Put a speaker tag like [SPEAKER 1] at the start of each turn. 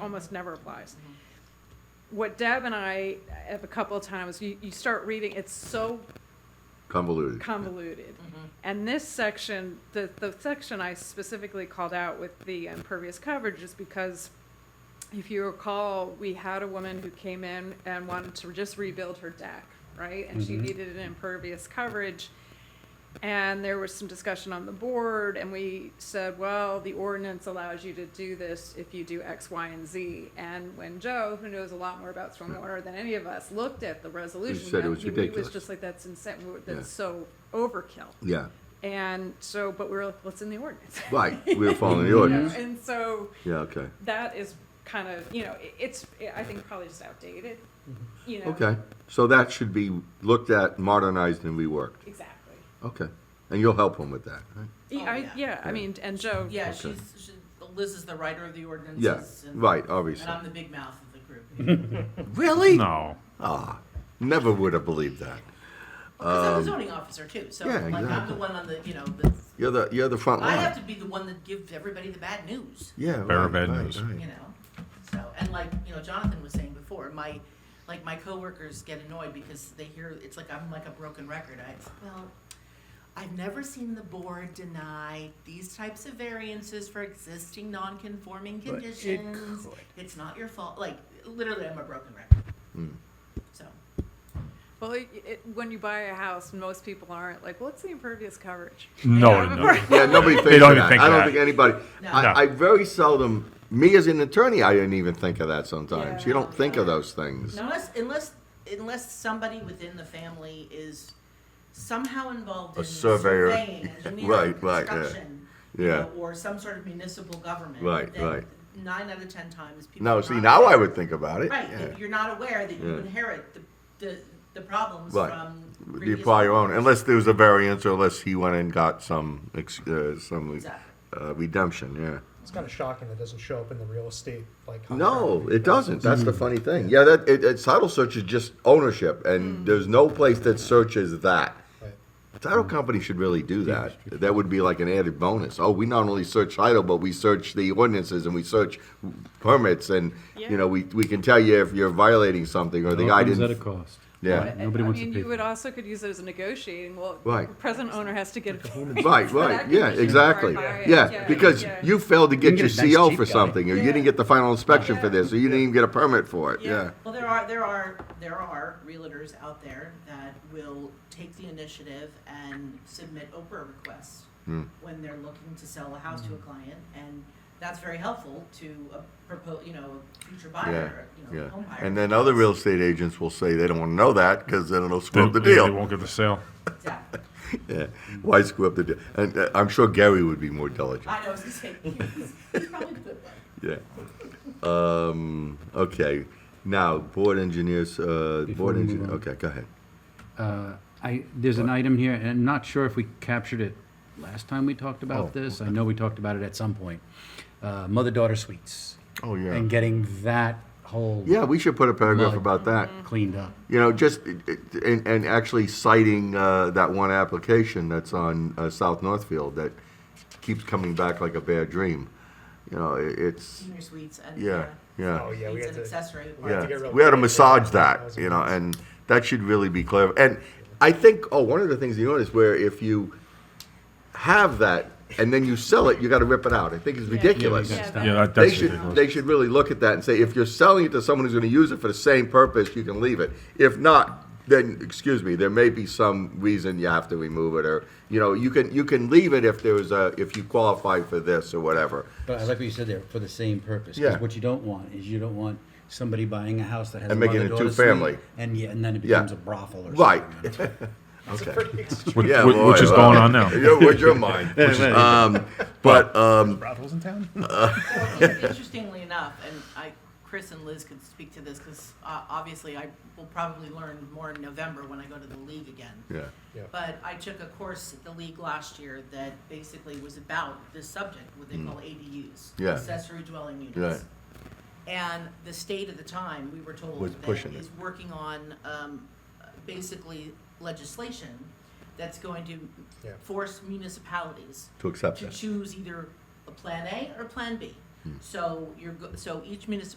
[SPEAKER 1] almost never applies. What Deb and I have a couple of times, you, you start reading, it's so
[SPEAKER 2] convoluted.
[SPEAKER 1] convoluted. And this section, the, the section I specifically called out with the impervious coverage is because if you recall, we had a woman who came in and wanted to just rebuild her deck, right? And
[SPEAKER 2] Mm-hmm.
[SPEAKER 1] she needed an impervious coverage. And there was some discussion on the board and we said, well, the ordinance allows you to do this if you do X, Y, and Z. And when Joe, who knows a lot more about stormwater than any of us, looked at the resolution,
[SPEAKER 2] said it was
[SPEAKER 1] he- he
[SPEAKER 2] ridiculous.
[SPEAKER 1] just like that's insane, we-
[SPEAKER 2] Yeah.
[SPEAKER 1] that's so overkill.
[SPEAKER 2] Yeah,
[SPEAKER 1] And so, but we were like, what's in the ordinance?
[SPEAKER 2] right, we were following the
[SPEAKER 1] You know,
[SPEAKER 2] ordinance.
[SPEAKER 1] And so
[SPEAKER 2] Yeah, okay,
[SPEAKER 1] that is kind of, you know, i- it's, I think probably just outdated, you know?
[SPEAKER 2] okay. So that should be looked at, modernized, and reworked.
[SPEAKER 1] Exactly.
[SPEAKER 2] Okay, and you'll help him with that, right?
[SPEAKER 1] Y-
[SPEAKER 3] Oh,
[SPEAKER 1] I,
[SPEAKER 3] yeah.
[SPEAKER 1] yeah, I mean, and Joe.
[SPEAKER 3] Yeah,
[SPEAKER 2] Okay.
[SPEAKER 3] she's, she, Liz is the writer of the ordinances.
[SPEAKER 2] Yeah,
[SPEAKER 3] and-
[SPEAKER 2] right,
[SPEAKER 3] And
[SPEAKER 2] obviously. Um,
[SPEAKER 3] I'm the big mouth of the group.
[SPEAKER 2] Really?
[SPEAKER 4] No.
[SPEAKER 2] Ah, never would have believed that.
[SPEAKER 3] Because I'm the zoning officer too, so
[SPEAKER 2] yeah,
[SPEAKER 3] like I'm the
[SPEAKER 2] exactly.
[SPEAKER 3] one on the, you know, the,
[SPEAKER 2] You're the, you're the front
[SPEAKER 3] I have to
[SPEAKER 2] line.
[SPEAKER 3] be the one that gives everybody the bad news.
[SPEAKER 2] Yeah.
[SPEAKER 4] Bearer
[SPEAKER 2] right,
[SPEAKER 4] of bad
[SPEAKER 2] right,
[SPEAKER 4] news.
[SPEAKER 2] right.
[SPEAKER 3] you know. So and like you know, Jonathan was saying before, my like my coworkers get annoyed because they hear it's like I'm like a broken record. I well, I've never seen the board deny these types of variances for existing non-conforming
[SPEAKER 5] But it
[SPEAKER 3] conditions.
[SPEAKER 5] could.
[SPEAKER 3] It's not your fault. Like literally, I'm a broken record.
[SPEAKER 5] Hmm.
[SPEAKER 3] So
[SPEAKER 1] Well, it, it- when you buy a house, most people aren't like, what's the impervious coverage?
[SPEAKER 4] No, no, no.
[SPEAKER 2] Yeah, nobody thinks
[SPEAKER 4] They don't
[SPEAKER 2] of
[SPEAKER 4] even
[SPEAKER 2] that.
[SPEAKER 4] think
[SPEAKER 2] I
[SPEAKER 4] of
[SPEAKER 2] don't
[SPEAKER 4] that.
[SPEAKER 2] think anybody.
[SPEAKER 3] No.
[SPEAKER 2] I,
[SPEAKER 4] No.
[SPEAKER 2] I very seldom. Me as an attorney, I didn't even think of that. Sometimes you
[SPEAKER 1] Yeah.
[SPEAKER 2] don't think of those things.
[SPEAKER 3] unless unless unless somebody within the family is somehow involved
[SPEAKER 2] A
[SPEAKER 3] in
[SPEAKER 2] surveyor.
[SPEAKER 3] surveying, engineering,
[SPEAKER 2] Right, right, yeah.
[SPEAKER 3] construction, you
[SPEAKER 2] Yeah.
[SPEAKER 3] know, or some sort of municipal government,
[SPEAKER 2] Right,
[SPEAKER 3] then
[SPEAKER 2] right.
[SPEAKER 3] Nine out of ten times, people.
[SPEAKER 2] No,
[SPEAKER 3] are
[SPEAKER 2] see,
[SPEAKER 3] not
[SPEAKER 2] now I
[SPEAKER 3] aware-
[SPEAKER 2] would think about it.
[SPEAKER 3] Right,
[SPEAKER 2] yeah.
[SPEAKER 3] if you're not aware that you
[SPEAKER 2] Yeah.
[SPEAKER 3] inherit the the, the problems
[SPEAKER 2] Right.
[SPEAKER 3] from
[SPEAKER 2] The
[SPEAKER 3] previous
[SPEAKER 2] prior owner,
[SPEAKER 3] owners.
[SPEAKER 2] unless there was a variance, or unless he went and got some ex- uh, some
[SPEAKER 3] Exactly.
[SPEAKER 2] uh, redemption. Yeah.
[SPEAKER 6] It's kind of shocking it doesn't show up in the real estate like.
[SPEAKER 2] No,
[SPEAKER 6] contract.
[SPEAKER 2] it doesn't. That's the funny thing. Yeah, that it, it, title search is just ownership, and
[SPEAKER 3] Mm.
[SPEAKER 2] there's no place that searches that.
[SPEAKER 6] Right.
[SPEAKER 2] Title company should really do that. That would be like an added bonus. Oh, we not only search title, but we search the ordinances and we search permits, and you know, we we can tell you if you're violating something or the
[SPEAKER 7] It all
[SPEAKER 2] guy
[SPEAKER 7] comes
[SPEAKER 2] didn't.
[SPEAKER 7] at a cost.
[SPEAKER 2] yeah.
[SPEAKER 1] And-
[SPEAKER 7] Nobody
[SPEAKER 1] I
[SPEAKER 7] wants to
[SPEAKER 1] mean,
[SPEAKER 7] pay
[SPEAKER 1] you
[SPEAKER 7] for
[SPEAKER 1] would
[SPEAKER 7] it.
[SPEAKER 1] also could use it as a negotiating, well,
[SPEAKER 2] Right.
[SPEAKER 1] the present owner has to get. a variance
[SPEAKER 2] Right,
[SPEAKER 1] for that
[SPEAKER 2] right, yeah,
[SPEAKER 1] condition
[SPEAKER 2] exactly.
[SPEAKER 1] before I buy it.
[SPEAKER 2] Yeah, because
[SPEAKER 1] yeah.
[SPEAKER 2] you failed to
[SPEAKER 7] can
[SPEAKER 2] get your
[SPEAKER 7] get a nice
[SPEAKER 2] CO
[SPEAKER 7] cheap
[SPEAKER 2] for
[SPEAKER 7] guy.
[SPEAKER 2] something, or you didn't get the final inspection for this, or you didn't even get a permit for it, yeah.
[SPEAKER 3] Well, there are, there are, there are realtors out there that will take the initiative and submit Oprah requests
[SPEAKER 2] Hmm.
[SPEAKER 3] when they're looking to sell a house to a client, and that's very helpful to a propose, you know, a future
[SPEAKER 2] Yeah,
[SPEAKER 3] buyer, you know,
[SPEAKER 2] yeah.
[SPEAKER 3] a
[SPEAKER 7] Oh
[SPEAKER 3] home buyer.
[SPEAKER 2] And then other real estate agents will say they don't want to know that because then it'll screw up the
[SPEAKER 4] They- They
[SPEAKER 2] deal.
[SPEAKER 4] won't get the sale.
[SPEAKER 3] Exactly.
[SPEAKER 2] Yeah. Why screw up the deal? And uh, I'm sure Gary would be more diligent.
[SPEAKER 3] I know, I was gonna say, he's, he's probably good one.
[SPEAKER 2] Yeah. Um, okay. Now, board engineers, uh,
[SPEAKER 7] Before
[SPEAKER 2] board
[SPEAKER 7] we move
[SPEAKER 2] engineer,
[SPEAKER 7] on.
[SPEAKER 2] okay, go ahead.
[SPEAKER 7] Uh, I, there's an item here, and I'm not sure if we captured it last time we talked about
[SPEAKER 2] Oh,
[SPEAKER 7] this. I know we talked about it at some point. Uh, Mother-daughter suites.
[SPEAKER 2] Oh, yeah.
[SPEAKER 7] And getting that whole
[SPEAKER 2] Yeah, we should put a paragraph
[SPEAKER 7] Mike.
[SPEAKER 2] about that.
[SPEAKER 7] cleaned up.
[SPEAKER 2] You know, just, it- it- and, and actually citing, uh, that one application that's on, uh, South Northfield that keeps coming back like a bad dream. You know, it- it's,
[SPEAKER 3] Senior suites and.
[SPEAKER 2] yeah, yeah.
[SPEAKER 6] Oh, yeah, we
[SPEAKER 3] Suites
[SPEAKER 6] had
[SPEAKER 3] and
[SPEAKER 6] to-
[SPEAKER 3] accessory
[SPEAKER 6] have to
[SPEAKER 2] Yeah,
[SPEAKER 6] get
[SPEAKER 3] apartments.
[SPEAKER 6] rid of
[SPEAKER 2] we had to
[SPEAKER 6] the-
[SPEAKER 2] massage that,
[SPEAKER 6] Those
[SPEAKER 2] you know,
[SPEAKER 6] ones.
[SPEAKER 2] and that should really be clear. And I think, oh, one of the things you notice where if you have that and then you sell it, you got to rip it out. I think it's ridiculous.
[SPEAKER 7] Yeah,
[SPEAKER 1] Yeah,
[SPEAKER 4] Yeah, that,
[SPEAKER 2] They
[SPEAKER 4] that's
[SPEAKER 2] should
[SPEAKER 4] ridiculous.
[SPEAKER 2] they should really look at that and say if you're selling it to someone who's going to use it for the same purpose, you can leave it. If not, then excuse me, there may be some reason you have to remove it, or you know, you can you can leave it if there's a if you qualify for this or whatever.
[SPEAKER 7] But I like what you said there, for the same purpose.
[SPEAKER 2] Yeah.
[SPEAKER 7] Because what you don't want is you don't want somebody buying a house that has
[SPEAKER 2] And
[SPEAKER 7] a
[SPEAKER 2] making it
[SPEAKER 7] mother-daughter
[SPEAKER 2] two-family.
[SPEAKER 7] suite, and yeah, and then it
[SPEAKER 2] Yeah.
[SPEAKER 7] becomes a brothel or something.
[SPEAKER 2] Right.
[SPEAKER 7] you know?
[SPEAKER 6] It's a pretty extreme.
[SPEAKER 4] Which,
[SPEAKER 2] Yeah,
[SPEAKER 4] which- which
[SPEAKER 2] boy,
[SPEAKER 4] is
[SPEAKER 2] well,
[SPEAKER 4] going on now.
[SPEAKER 2] Your, what's your mind? um, but um,
[SPEAKER 4] Brothels in town?
[SPEAKER 3] uh, Well, in- Interestingly enough, and I, Chris and Liz could speak to this, because obviously I will probably learn more in November when I go to the league again.
[SPEAKER 2] yeah.
[SPEAKER 6] Yeah.
[SPEAKER 3] But I took a course at the league last year that basically was about this subject, what they call ADUs.
[SPEAKER 2] Hmm. Yeah.
[SPEAKER 3] Accessory dwelling units.
[SPEAKER 2] Right.
[SPEAKER 3] And the state at the time, we were told.
[SPEAKER 2] Was
[SPEAKER 3] that
[SPEAKER 2] pushing it.
[SPEAKER 3] Is working on, um, basically legislation that's going to
[SPEAKER 6] Yeah.
[SPEAKER 3] force municipalities
[SPEAKER 2] To accept
[SPEAKER 3] to
[SPEAKER 2] that. Hmm.
[SPEAKER 3] choose either a Plan A or Plan B. So you're, go- so each municipality